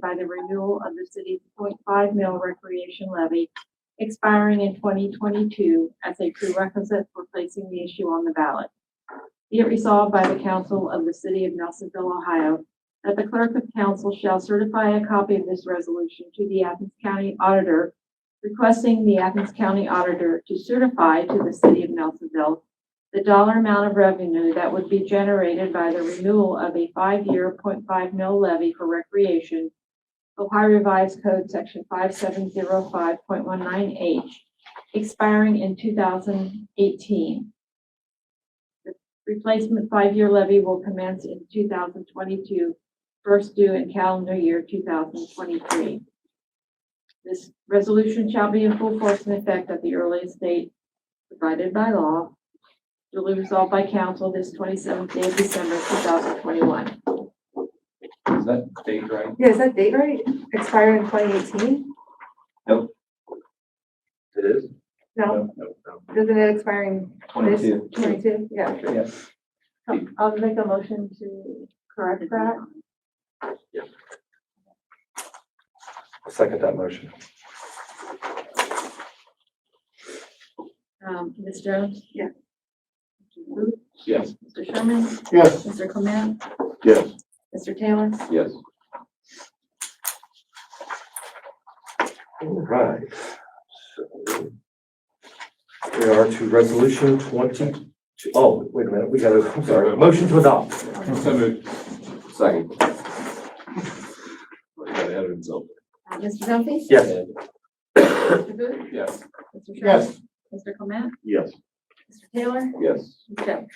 by the renewal of the city's 0.5 mil recreation levy expiring in twenty twenty-two as a prerequisite for placing the issue on the ballot. Be it resolved by the council of the city of Nelsonville, Ohio, that the clerk of council shall certify a copy of this resolution to the Athens County Auditor, requesting the Athens County Auditor to certify to the city of Nelsonville the dollar amount of revenue that would be generated by the renewal of a five-year 0.5 mil levy for recreation, Ohio Revised Code Section five seven zero five point one nine H, expiring in two thousand eighteen. The Replacement five-year levy will commence in 2022, first due in calendar year two thousand twenty-three. This resolution shall be in full force and effect at the earliest date provided by law, duly resolved by council this twenty-seventh day of December, two thousand twenty-one. Is that date right? Yeah, is that date right? Expired in twenty eighteen? It is. No, isn't it expiring Twenty-two. twenty-two? Yeah. Yeah. I'll make a motion to correct that. I'll second that motion. Um, Ms. Jones? Yeah. Mr. Booth? Yes. Mr. Sherman? Yes. Mr. Clement? Yes. Mr. Taylor? Yes. All right. So, We are to resolution twenty, two- oh, wait a minute, we gotta, I'm sorry, motion to adopt. So moved. Second. Got ahead of himself. Uh, Mr. Duffy? Yes. Mr. Booth? Yes. Mr. Sherman? Mr. Clement? Yes. Mr. Taylor? Yes. Ms. Jones?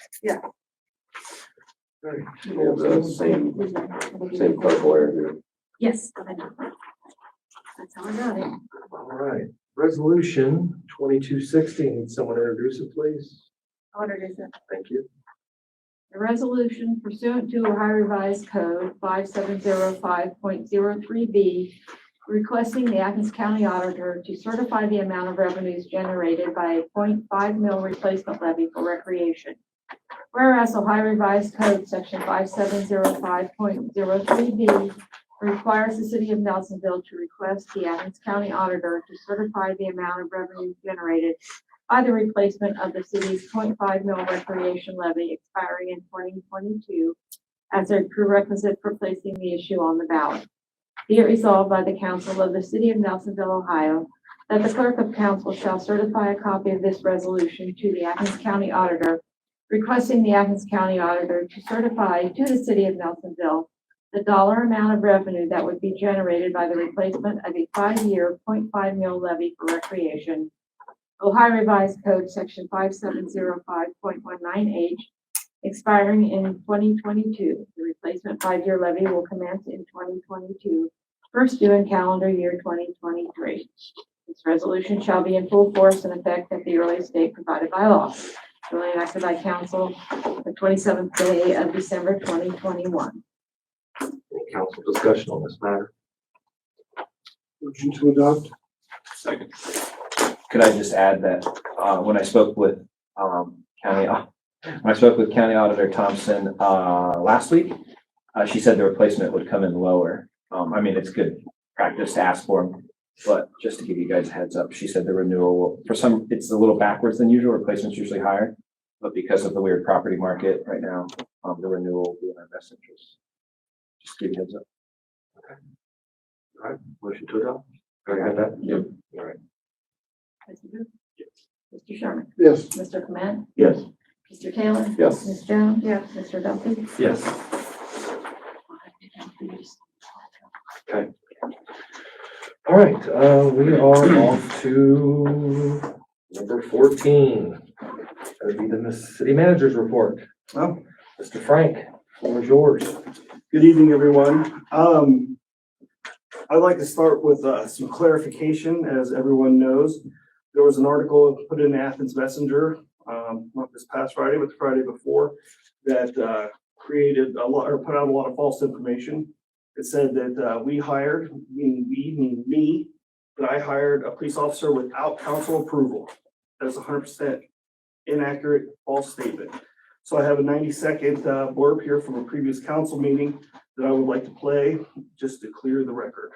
We have the same, same clerk lawyer here. Yes, I know. That's how I got it. All right, resolution twenty-two sixteen, someone introduce it, please? Auditor, is that Thank you. A resolution pursuant to Ohio Revised Code five seven zero five point zero three B, requesting the Athens County Auditor to certify the amount of revenues generated by a 0.5 mil replacement levy for recreation. Whereas Ohio Revised Code section five seven zero five point zero three B requires the city of Nelsonville to request the Athens County Auditor to certify the amount of revenues generated by the replacement of the city's 0.5 mil recreation levy expiring in twenty twenty-two as a prerequisite for placing the issue on the ballot. Be it resolved by the council of the city of Nelsonville, Ohio, that the clerk of council shall certify a copy of this resolution to the Athens County Auditor, requesting the Athens County Auditor to certify to the city of Nelsonville the dollar amount of revenue that would be generated by the replacement of a five-year 0.5 mil levy for recreation Ohio Revised Code, Section 5705.19H, expiring in 2022. The replacement five-year levy will commence in 2022, first due in calendar year 2023. This resolution shall be in full force and effect at the earliest date provided by law, duly enacted by council the 27th day of December 2021. Any council discussion on this matter? Motion to adopt? Second. could I just add that, uh, when I spoke with, um, county, au- when I spoke with County Auditor Thompson, uh, last week, uh, she said the replacement would come in lower. Um, I mean, it's good practice to ask for them, but just to give you guys a heads up, she said the renewal, will- for some, it's a little backwards than usual, replacement's usually higher. But because of the weird property market right now, um, the renewal will be in our best interest. Just give you a heads up. Motion to adopt? I got that? Yep. All right. Mr. Booth? Mr. Sherman? Yes. Mr. Clement? Yes. Mr. Taylor? Yes. Ms. Jones? Yes. Mr. Duffy? Yes. All right, uh, we are off to number fourteen. That would be the Miss- city manager's report. Oh. Mr. Frank, floor is yours. Good evening, everyone. Um, I'd like to start with, uh, some clarification. As everyone knows, there was an article put in Athens Messenger, um, not this past Friday, but the Friday before, that, uh, created a lot, or put out a lot of false information. It said that, uh, we hired, meaning we, meaning me, that I hired a police officer without council approval. That's hundred percent uh, inaccurate, false statement. So I have a ninety-second blurb here from a previous council meeting that I would like to play, just to clear the record.